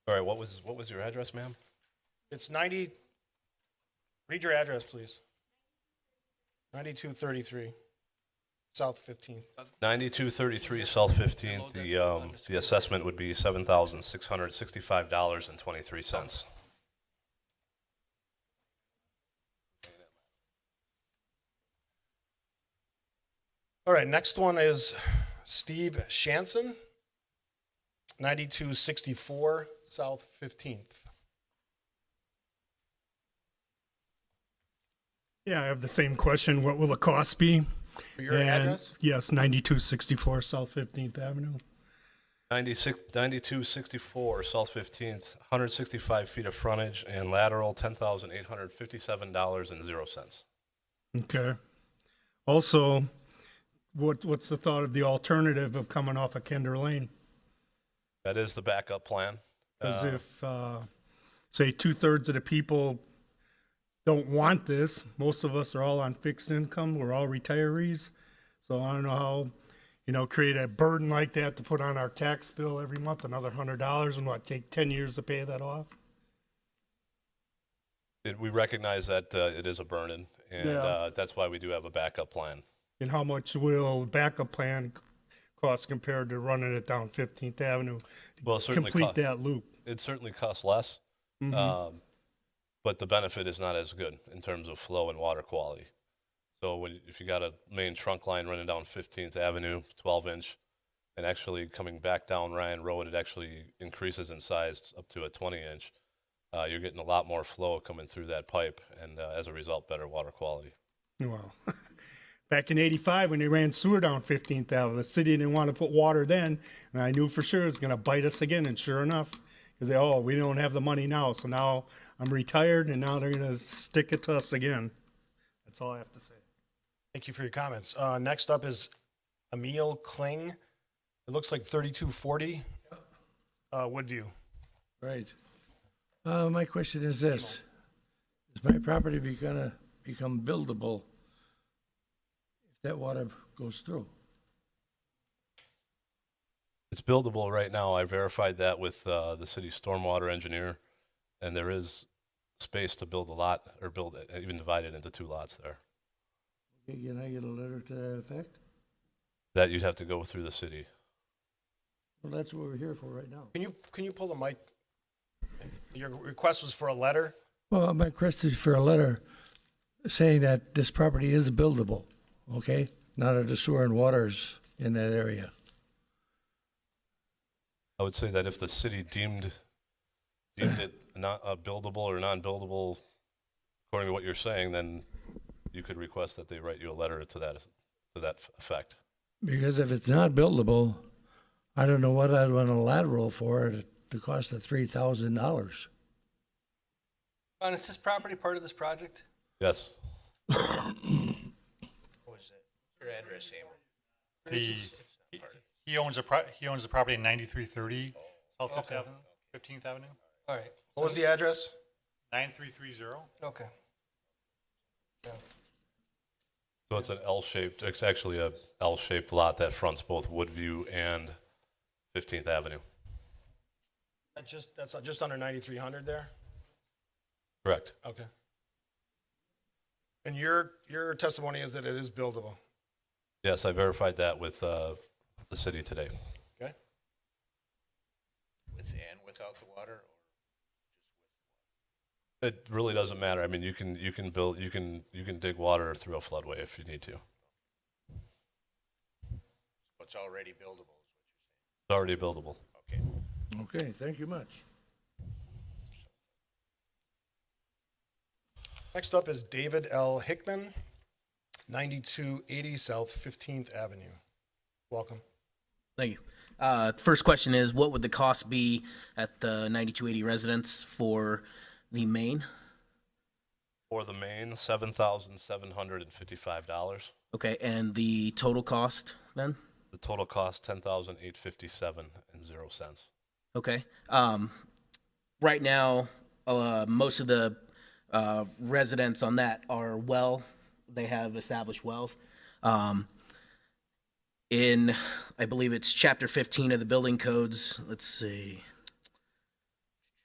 Sorry, what was, what was your address, ma'am? It's 90, read your address, please. 9233 South 15th. 9233 South 15th, the, um, the assessment would be $7,665.23. All right, next one is Steve Shanson, 9264 South 15th. Yeah, I have the same question. What will the cost be? For your And- address? Yes, 9264 South 15th Avenue. 96 9264 South 15th, 165 feet of frontage and lateral, $10,857.00. Okay. Also, what, what's the thought of the alternative of coming off of Kinder Lane? That is the backup plan. Because Uh, if, uh, say, two thirds of the people don't want this, most of us are all on fixed income, we're all retirees. So I don't know how, you know, create a burden like that to put on our tax bill every month, another hundred dollars, and what, take ten years to pay that off? it- We recognize that uh, it is a burden, and Yeah. uh, that's why we do have a backup plan. And how much will backup plan c- cost compared to running it down Fifteenth Avenue? to Well, it certainly Complete cost- that loop. It certainly costs less, um, but the benefit is not as good in terms of flow and water quality. So when, if you got a main trunk line running down 15th Avenue, 12 inch, and actually coming back down Ryan Road, it actually increases in size up to a 20 inch. Uh, you're getting a lot more flow coming through that pipe, and uh, as a result, better water quality. Well, back in '85 when they ran sewer down 15th Avenue, the city didn't want to put water then, and I knew for sure it was going to bite us again. And sure enough, because they oh we don't have the money now, so now I'm retired, and now they're going to stick it to us again. That's all I have to say. Thank you for your comments. Uh, next up is Emil Kling. It looks like 3240 uh, Woodview. Right. Uh, my question is this. Is my property be gonna become buildable if that water goes through? It's buildable right now. I verified that with uh, the city's stormwater engineer, and there is space to build a lot or build it, even divide it into two lots there. Okay, Can I get a letter to that effect? That you'd have to go through the city. Well, that's what we're here for right now. Can you, can you pull the mic? Your request was for a letter? Well, my request is for a letter saying that this property is buildable, okay? Not that the sewer and water's in that area. I would say that if the city deemed deemed it not uh, buildable or non-buildable, according to what you're saying, then you could request that they write you a letter to that to that effect. Because if it's not buildable, I don't know what I'd want a lateral for at the cost of three thousand dollars. Ron, is this property part of this project? Yes. The, he- he owns a, pro- he owns the property in 9330 South Fifth Okay. Avenue, 15th Avenue, All right, What was the address? 9330. okay. Yeah. So it's an L-shaped. It's actually a L-shaped lot that fronts both Woodview and 15th Avenue. That's just, that's just under 9,300 there? Correct. Okay. And your, your testimony is that it is buildable, Yes, I verified that with uh, the city today. okay? It really doesn't matter. I mean, you can you can build you can you can dig water through a floodway if you need to. It's already buildable. Okay, thank you much. Next up is David L. Hickman, 9280 South 15th Avenue. Welcome. Thank you. Uh, first question is, what would the cost be at the 9280 residence for the main? For the main, seven thousand seven hundred and fifty-five dollars. Okay, and the total cost then? The total cost ten thousand eight fifty-seven and zero cents. Okay. Um, right now, uh, most of the uh, residents on that are well. They have established wells. Um, in, I believe it's chapter 15 of the building codes. Let's see.